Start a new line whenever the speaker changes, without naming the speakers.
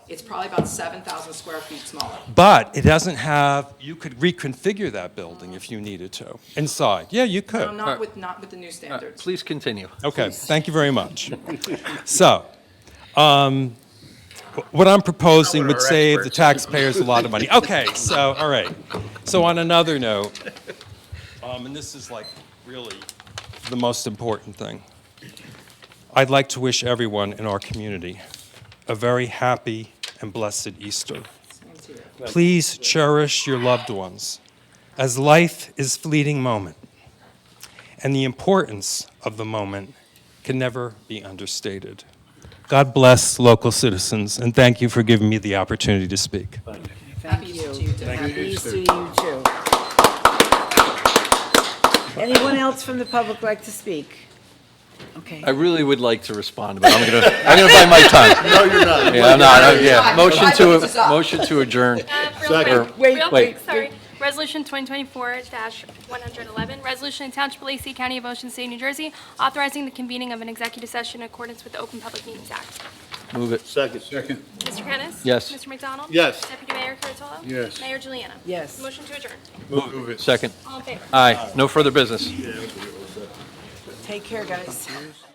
It's probably about 7,000 square feet smaller.
Uh,
But it doesn't have, you could reconfigure that building if you needed to, inside. Yeah, you
No,
could.
Not with, not with the new
Uh,
standards.
Please continue.
Okay, thank you very much. So, um, what I'm proposing would save the taxpayers a lot of money. Okay, so, all right. So on another note, um, and this is like really the most important thing. I'd like to wish everyone in our community a very happy and blessed Easter.
Same to you.
Please cherish your loved ones, as life is fleeting moment, and the importance of the moment can never be understated. God bless local citizens, and thank you for giving me the opportunity to speak.
Happy Easter to you, too. Happy
Happy Easter to you too. Anyone else from the public like to speak? Okay.
I really would like to respond, but I'm gonna, I'm gonna bite my tongue. No, you're not. Yeah, I'm not, I- yeah.
Five
Motion
minutes is
to,
up.
motion to adjourn.
Uh, Real quick,
Wait,
real
wait.
quick, sorry. Resolution 2024-111, resolution of Township of Lacey, County of Ocean State, New Jersey, authorizing the convening of an executive session in accordance with the Open Public Meetings Act.
Move it.
Second. Second.
Mr. Kennis?
Yes.
Mr. McDonald?
Yes.
Deputy Mayor Kuratolo?
Yes.
Mayor Juliana?
Yes.
Motion to adjourn.
Move it.
Second.
All in favor?
Aye. No further business.
Take care, guys.